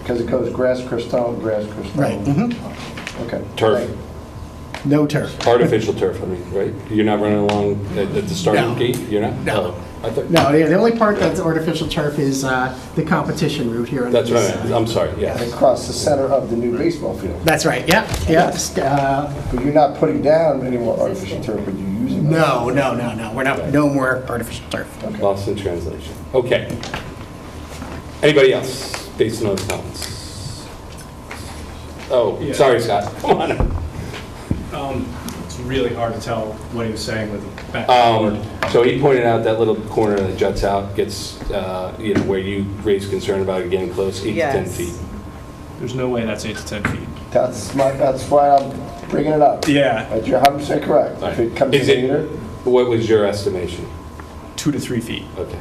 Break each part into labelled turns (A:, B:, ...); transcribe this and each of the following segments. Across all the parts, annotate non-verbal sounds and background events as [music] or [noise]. A: Because it goes grass crystal, grass crystal.
B: Right, mhm.
A: Okay.
C: Turf.
B: No turf.
C: Artificial turf, I mean, right? You're not running along at at the starting
B: No.
C: gate? You're not?
B: No.
C: Oh, I thought-
B: No, yeah, the only part that's artificial turf is uh, the competition route here. on
C: That's
B: this
C: right, I'm sorry, yes.
A: Across the center of the new baseball field.
B: That's right, yeah, yeah. st- uh,
A: But you're not putting down any more artificial turf, but you're using. it.
B: No, no, no, no, we're not, no more artificial turf.
C: Lost in translation. Okay. Anybody else based on those comments? Oh,
D: Yeah.
C: sorry, Scott. [laughs] Come on. up.
D: Um, It's really hard to tell what he was saying with the back
C: Um,
D: and forth.
C: So he pointed out that little corner that juts out gets, uh, you know, where you raised concern about it getting close, eight to 10
E: Yes.
C: feet.
D: There's no way that's eight to 10 feet.
A: That's my, that's why I'm bringing it up.
D: Yeah,
A: But you're 100% correct. If it comes in
C: Is it-
A: later,
C: What was your estimation?
D: two to three feet.
C: Okay.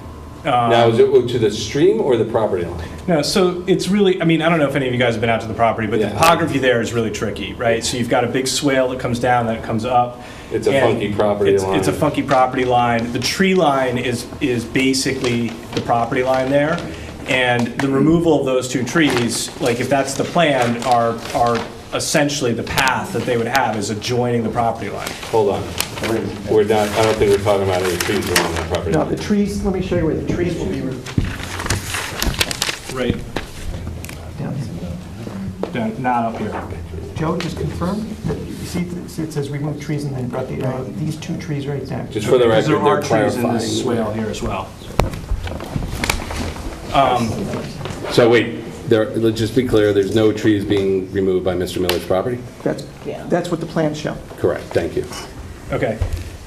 D: Um,
C: Now, is it to the stream or the property line?
D: No, so it's really, I mean, I don't know if any of you guys have been out to the property, but the
C: Yeah.
D: topography there is really tricky, right? So you've got a big swale that comes down, then it comes up.
C: It's a
D: and
C: funky property
D: it's- It's a
C: line.
D: funky property line. The tree line is, is basically the property line there. And the removal of those two trees, like if that's the plan, are, are essentially the path that they would have is adjoining the property line.
C: Hold on. We're not, I don't think we're talking about any trees along that property.
B: No,
C: line.
B: the trees, let me show you where the trees will be.
D: Right. Down- Not up here.
F: Joe, just confirm, that you see, it see it says remove trees and then brought the, uh, these two trees right there.
C: Just for the record,
D: Because there
C: they're
D: are trees in this
C: clarifying.
D: swale here as well. Um,
C: So wait, there, let's just be clear, there's no trees being removed by Mr. Miller's property?
F: That's, that's what the plans show.
C: Correct, thank you.
D: Okay,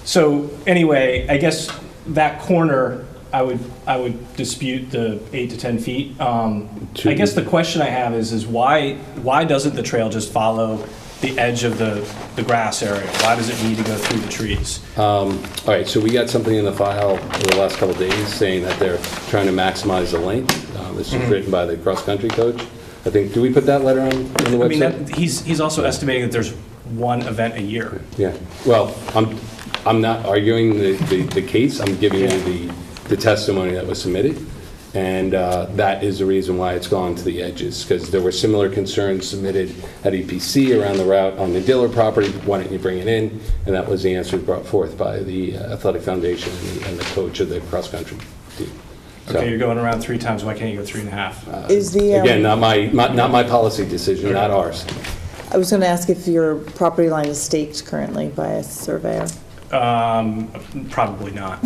D: so anyway, I guess that corner, I would, I would dispute the eight to 10 feet. Um, I
C: To-
D: guess the question I have is, is why, why doesn't the trail just follow the edge of the, the grass area? Why does it need to go through the trees?
C: Uh, Um, All right, so we got something in the file in the last couple of days saying that they're trying to maximize the length. Um, This
D: Mm-hmm.
C: is written by the cross-country coach. I think, do we put that letter on, on the
D: I mean,
C: website?
D: that- he's, he's also estimating that there's one event a year.
C: Yeah, well, I'm, I'm not arguing the, the the case, I'm giving you the, the testimony that was submitted, and uh, that is the reason why it's gone to the edges, because there were similar concerns submitted at EPC around the route on the Diller property, why didn't you bring it in? And that was the answer brought forth by the uh, athletic foundation and the- and the coach of the cross-country team. So,
D: Okay, you're going around three times, why can't you go three and a half?
E: Is the,
C: Again, not
E: um,
C: my, not not my policy decision, not ours.
E: I was going to ask if your property line is staked currently by a surveyor.
D: Um, Probably not.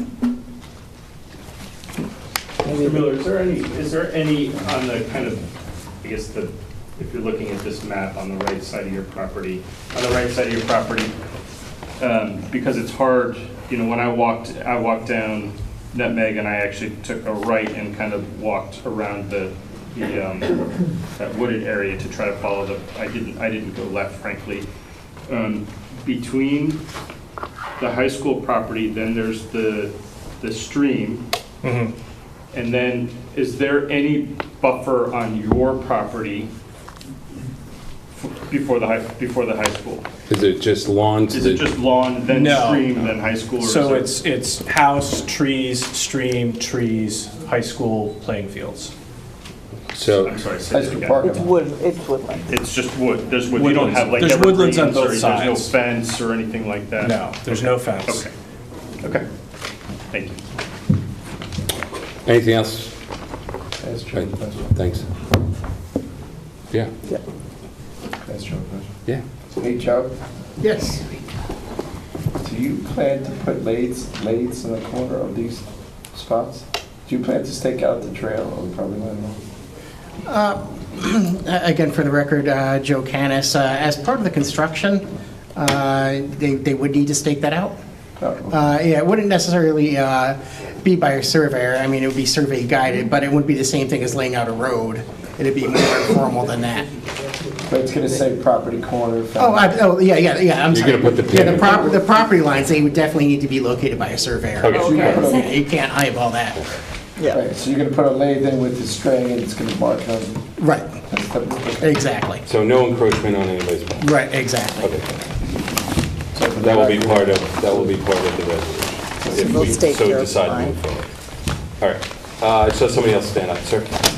E: Maybe
G: Mr. Miller, is there any, is there any on the kind of, I guess the, if you're looking at this map on the right side of your property, on the right side of your property, um, because it's hard, you know, when I walked, I walked down Nutmeg and I actually took a right and kind of walked around the, the, um, that wooded area to try to follow the, I didn't, I didn't go left frankly. Um, Between the high school property, then there's the, the stream, and then, is there any buffer on your property f- before the high, before the high school?
C: Is it just lawn to
G: Is
C: the?
G: it just lawn, then
D: No.
G: stream, then high school? or is
D: So
G: there-
D: it's, it's house, trees, stream, trees, high school playing fields.
C: So.
G: I'm sorry, say
A: that's
G: that
A: the
E: It's
G: again.
A: parking lot.
E: wood, it's woodland.
G: It's just wood, there's wood, you don't
D: Woodlands.
G: have like
D: There's woodlands
G: evergreens,
D: on
G: or
D: both
G: there's no
D: sides.
G: fence or anything like that?
D: No, there's no fence.
G: Okay, okay, thank you.
C: Anything else?
A: That's
C: Right,
A: true. That's true.
C: thanks. Yeah,
A: That's true. That's true.
C: yeah.
A: Hey, Joe,
B: Yes.
A: do you plan to put lanes, lanes in the corner of these spots? Do you plan to stake out the trail or probably not?
B: Uh, Again, for the record, uh, Joe Canis, uh, as part of the construction, uh, they they would need to stake that out.
A: No.
B: Uh, Yeah, it wouldn't necessarily uh, be by a surveyor, I mean, it would be survey guided, but it wouldn't be the same thing as laying out a road. It'd be more informal than that.
A: But it's going to say property corner.
B: Oh,
A: found-
B: I, oh, yeah, yeah, yeah, I'm
C: You're
B: sorry.
C: gonna put the pin
B: Yeah, the
C: in.
B: property, the property lines, they would definitely need to be located by a surveyor.
C: Okay.
B: Yeah, You can't eyeball that.
E: Yeah.
A: Right, so you're going to put a lane in with the string and it's going to mark on.
B: Right,
A: that's the-
B: exactly,
C: So no encroachment on anybody's property.
B: right, exactly.
C: Okay. That will be part of, that will be part of the resolution. If
E: We'll
C: we
E: stake
C: so
E: your
C: decide to move forward. All right, Uh, I saw somebody else stand up, sir.